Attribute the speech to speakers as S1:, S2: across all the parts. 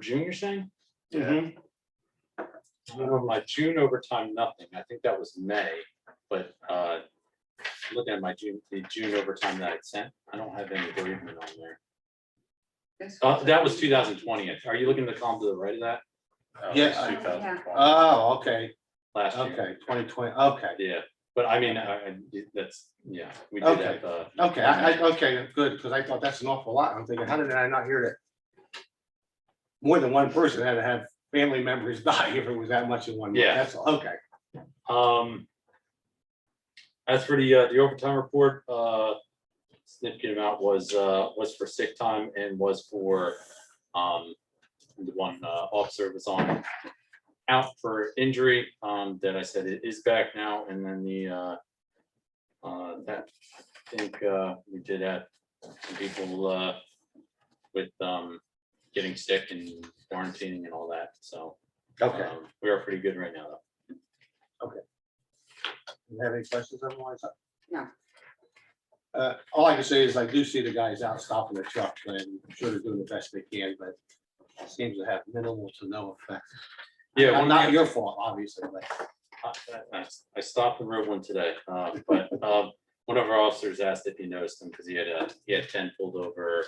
S1: June, you're saying?
S2: Yeah.
S1: Mhm.
S2: Mm-hmm.
S1: I don't know, my June overtime, nothing. I think that was May, but uh, looking at my June, the June overtime that I sent, I don't have any bereavement on there.
S3: This
S1: Uh, that was two thousand twenty. Are you looking at the column to the right of that? Oh, it's
S2: Yes.
S1: 2020,
S4: Uh,
S2: Oh, okay,
S1: Last year,
S2: okay, twenty twenty, okay,
S1: yeah, but I mean, I, I, that's, yeah, we did
S2: Okay.
S1: have, uh,
S2: okay, I, I, okay, good, because I thought that's an awful lot. I'm thinking, how did I not hear that? More than one person had to have family members die if it was that much in one. month.
S1: Yeah.
S2: That's, all. okay.
S1: Um. As for the, uh, the overtime report, uh, significant amount was, uh, was for sick time and was for, um, the one, uh, officer was on out for injury, um, that I said it is back now, and then the, uh, uh, that, I think, uh, we did have some people, uh, with, um, getting sick and quarantining and all that, so.
S2: Okay,
S1: um, We are pretty good right now, though.
S2: you have any questions otherwise?
S3: No.
S2: Uh, all I can say is I do see the guys out stopping the truck, and I'm sure they're doing the best they can, but it seems to have minimal to no effect.
S1: Yeah,
S2: And
S1: one
S2: Not
S1: guy-
S2: your fault, obviously, but.
S1: I- I I stopped and rode one today, uh, but um, one of our officers asked if he noticed him because he had a, he had ten pulled over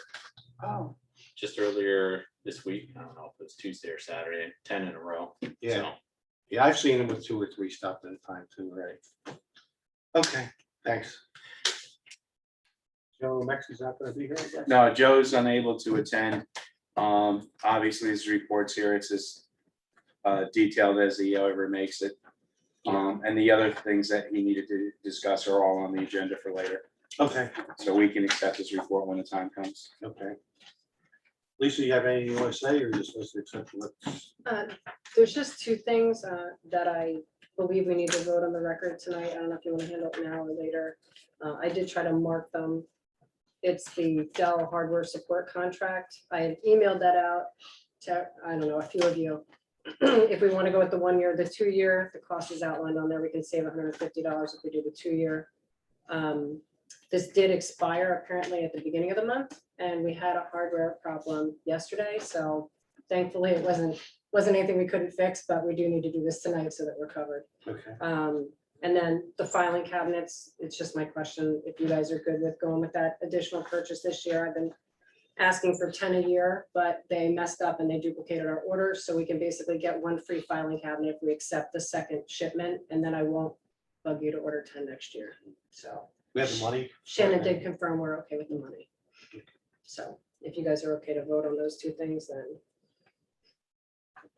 S3: Oh,
S1: just earlier this week. I don't know if it was Tuesday or Saturday, ten in a row.
S2: Yeah,
S1: So,
S2: yeah, I've seen them with two or three stopped at a time too, right? Okay, thanks. Joe Mexi's not gonna be here, I guess?
S4: No, Joe's unable to attend. Um, obviously, his reports here, it's as uh, detailed as he ever makes it. Um, and the other things that he needed to discuss are all on the agenda for later,
S2: Okay,
S4: so we can accept his report when the time comes.
S2: okay. Lisa, you have anything you wanna say, or just listen to accept what?
S5: Uh, There's just two things uh, that I believe we need to vote on the record tonight. I don't know if you want to handle it now or later. Uh, I did try to mark them. It's the Dell hardware support contract. I had emailed that out to, I don't know, a few of you. If we want to go with the one year, the two year, the cost is outlined on there. We can save hundred and fifty dollars if we do the two year. Um, This did expire apparently at the beginning of the month and we had a hardware problem yesterday, so thankfully it wasn't wasn't anything we couldn't fix, but we do need to do this tonight so that we're covered.
S2: Okay,
S5: Um, and then the filing cabinets, it's just my question, if you guys are good with going with that additional purchase this year, I've been asking for ten a year, but they messed up and they duplicated our order, so we can basically get one free filing cabinet if we accept the second shipment, and then I won't bug you to order ten next year, so.
S2: we have the money?
S5: Shannon did confirm we're okay with the money. So if you guys are okay to vote on those two things, then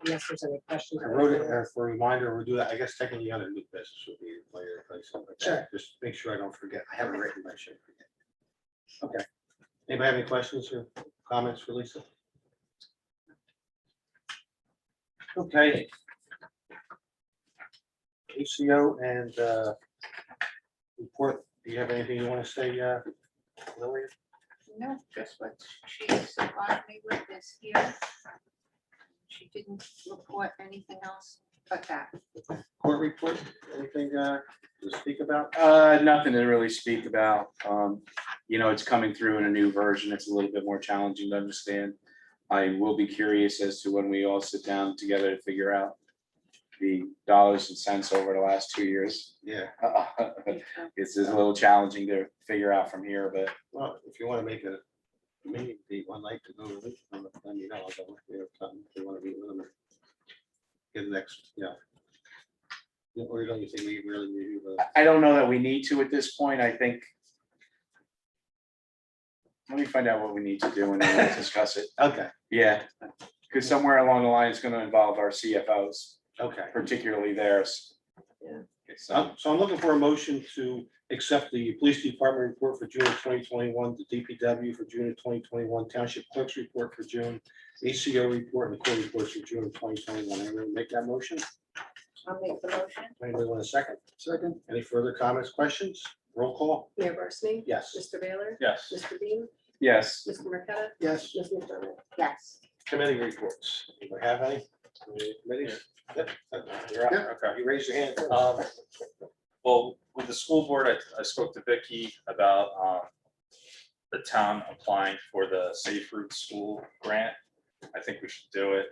S5: unless there's any questions.
S2: I wrote it there for a reminder, we'll do that, I guess technically the other new business would be later, like something like that. Just make sure I don't forget, I haven't written, but I should forget. Okay, anybody have any questions or comments for Lisa? Okay. ACO and uh, report, do you have anything you want to say, uh, Lily?
S3: no, just what she supplied me with this here. She didn't report anything else but that.
S2: Court report, anything uh, to speak about?
S4: Uh, nothing to really speak about. Um, you know, it's coming through in a new version. It's a little bit more challenging to understand. I will be curious as to when we all sit down together to figure out the dollars and cents over the last two years.
S2: Yeah,
S4: It's just a little challenging to figure out from here, but
S2: Well, if you want to make a meeting date, I'd like to go to this, one, but then you know, I'll go with you if something, if you want to meet with them. or Get next, yeah. Yeah, Or don't you think we really need to?
S4: I- I don't know that we need to at this point. I think. Let me find out what we need to do and then we'll discuss it.
S2: Okay,
S4: Yeah. Because somewhere along the line, it's going to involve our CFOs,
S2: okay.
S4: particularly theirs.
S5: Yeah.
S4: So,
S2: So so I'm looking for a motion to accept the police department report for June of twenty twenty-one, the DPW for June of twenty twenty-one, township clerk's report for June, ACO report and the court reports for June of twenty twenty-one. Anyone make that motion?
S3: I'll make the motion.
S2: Anybody want a second? Second. Any further comments, questions? Roll call?
S5: Mayor Barsney?
S2: Yes.
S5: Mr. Baylor?
S2: Yes.
S5: Mr. Beam?
S4: yes.
S5: Mr. Marqueta?
S2: Yes.
S5: Ms. McDermott?
S3: Yes.
S2: Committee reports. Do we have any? Any Committees? Yep. You're up.
S6: Okay,
S2: You raise your hand.
S6: um, well, with the school board, I, I spoke to Vicky about, um, the town applying for the Safe Route School Grant. I think we should do it.